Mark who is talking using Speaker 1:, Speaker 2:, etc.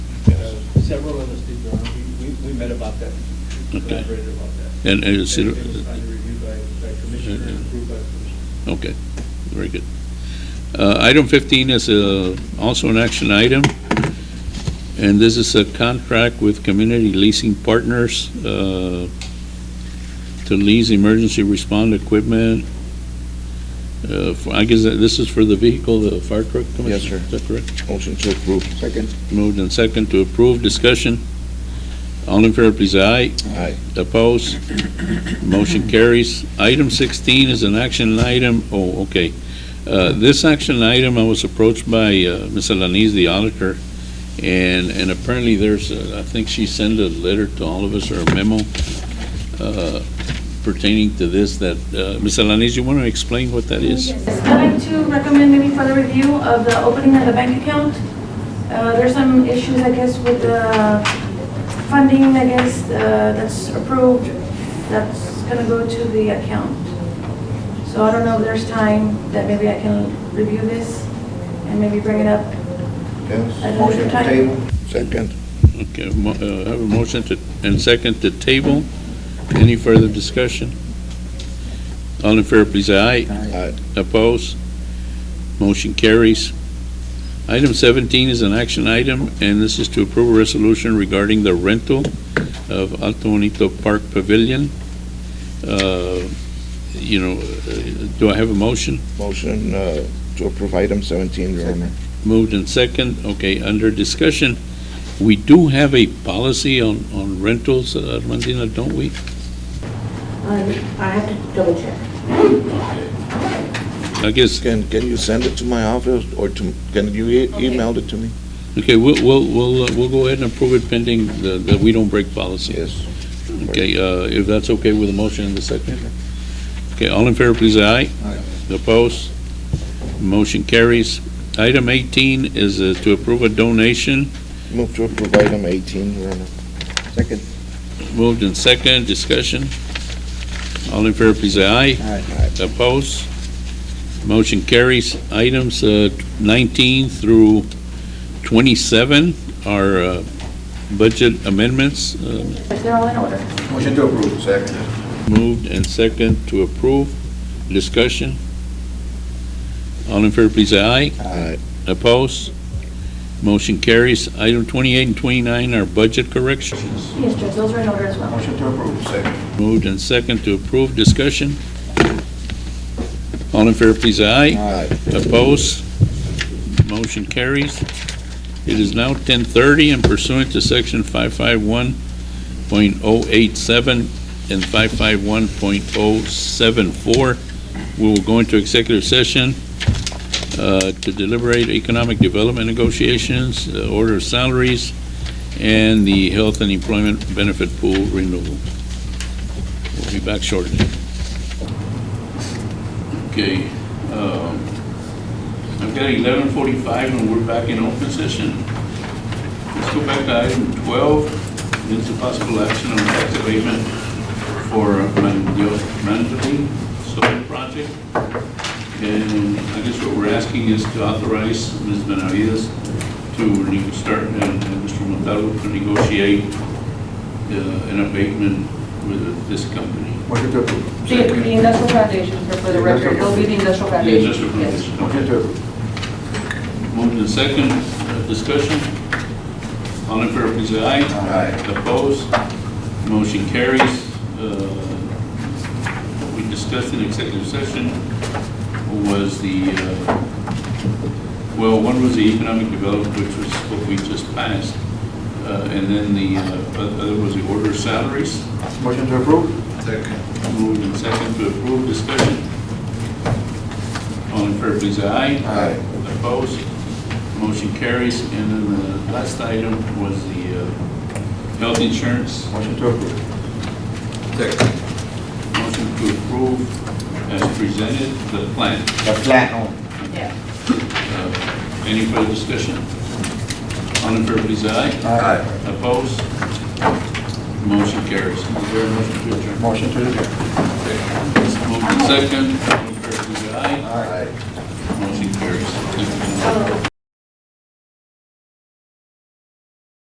Speaker 1: Several of us did, Your Honor. We- We, we met about that, We
Speaker 2: Okay.
Speaker 1: collaborated about that.
Speaker 2: And- and it's-
Speaker 1: Everything was under review by, by Commissioner and approved by Commissioner.
Speaker 2: Okay, very good. Uh, Item 15 is uh, also an action item, and this is a contract with Community Leasing Partners uh, to lease emergency respond equipment. Uh, for- I guess that this is for the vehicle, the fire truck,
Speaker 3: Yes,
Speaker 2: Commissioner?
Speaker 3: sir.
Speaker 2: Is that correct?
Speaker 3: Motion to approve. Second.
Speaker 2: Moved and second to approve, discussion. All in favor, please, aye.
Speaker 3: Aye.
Speaker 2: Opposed? Motion carries. Item 16 is an action item, oh, okay. Uh, This action item, I was approached by uh, Ms. Alanis, the auditor, and, and apparently there's, uh, I think she sent a letter to all of us or a memo uh, pertaining to this that, uh, Ms. Alanis, you want to explain what that is?
Speaker 4: Yes, I'd like to recommend maybe further review of the opening of the bank account. Uh, There's some issues, I guess, with the funding, I guess, uh, that's approved, that's going to go to the account. So I don't know if there's time that maybe I can review this and maybe bring it up.
Speaker 5: Yes,
Speaker 4: Another
Speaker 5: motion to
Speaker 4: time.
Speaker 5: table.
Speaker 3: Second.
Speaker 2: Okay, mo- uh, I have a motion to, and second to table. Any further discussion? All in favor, please, say aye.
Speaker 3: Aye.
Speaker 2: Opposed? Motion carries. Item 17 is an action item, and this is to approve a resolution regarding the rental of Alto Bonito Park Pavilion. Uh, You know, uh, do I have a motion?
Speaker 3: Motion uh, to approve item 17, Your Honor.
Speaker 2: Moved and second, okay, under discussion. We do have a policy on on rentals, uh, Armandina, don't we?
Speaker 6: Um, I have to double check.
Speaker 2: I guess,
Speaker 3: Can, can you send it to my office or to, can you e- email it to me?
Speaker 2: okay, we'll, we'll, we'll uh, we'll go ahead and approve it pending the- that we don't break policy.
Speaker 3: Yes.
Speaker 2: Okay, uh, if that's okay with the motion in the second. Okay, all in favor, please, aye. Aye. Opposed? Motion carries. Item 18 is uh, to approve a donation.
Speaker 3: Move to approve item 18, Your Honor. Second.
Speaker 2: Moved in second, discussion. All in favor, please, aye.
Speaker 3: Aye.
Speaker 2: Opposed? Motion carries. Items uh, 19 through 27 are uh, budget amendments. Uh,
Speaker 4: They're all in order.
Speaker 5: Motion to approve. Second.
Speaker 2: Moved and second to approve. Discussion. All in favor, please say aye.
Speaker 3: Aye.
Speaker 2: Opposed? Motion carries. Item 28 and 29 are budget corrections.
Speaker 4: Yes, Judge, those are in order as well.
Speaker 5: Motion to approve. Second.
Speaker 2: Moved and second to approve. Discussion. All in favor, please say aye.
Speaker 3: Aye.
Speaker 2: Opposed? Motion carries. It is now 10:30 and pursuant to Section 551.087 and 551.074, we will go into executive session uh, to deliberate economic development negotiations, uh, order of salaries, and the health and employment benefit pool renewal. We'll be back shortly. Okay. um, I've got eleven forty-five and we're back in open session. Let's go back to item twelve, it's a possible action on tax abatement for Mandel- Mandalay Solar Project. And I guess what we're asking is to authorize Ms. Benavides to ne- start and and Mr. Montalvo to negotiate uh, an abatement with this company.
Speaker 5: Motion to approve.
Speaker 7: The the industrial foundation, for for the record, will be the industrial foundation.
Speaker 2: Just a
Speaker 7: Yes.
Speaker 2: presentation.
Speaker 5: Motion to approve.
Speaker 2: Moved in second, uh, discussion. All in favor, please say aye.
Speaker 5: Aye.
Speaker 2: Opposed? Motion carries. Uh, We discussed in executive session was the, uh, well, one was the economic development, which was what we just passed, uh, and then the uh, other was the order of salaries.
Speaker 5: Motion to approve.
Speaker 2: Moved in second to approve, discussion. All in favor, please say aye.
Speaker 5: Aye.
Speaker 2: Opposed? Motion carries. And then the last item was the uh, health insurance.
Speaker 5: Motion to approve.
Speaker 2: Motion to approve as presented, the plan.
Speaker 5: The plan.
Speaker 2: Uh, Any further discussion? All in favor, please say aye.
Speaker 5: Aye.
Speaker 2: Opposed? Motion carries. Is there a motion to adjourn?
Speaker 5: Motion to adjourn.
Speaker 2: Moved in second. All in favor, please say aye.
Speaker 5: Aye.
Speaker 2: Motion carries. Thank you.
Speaker 4: Oh,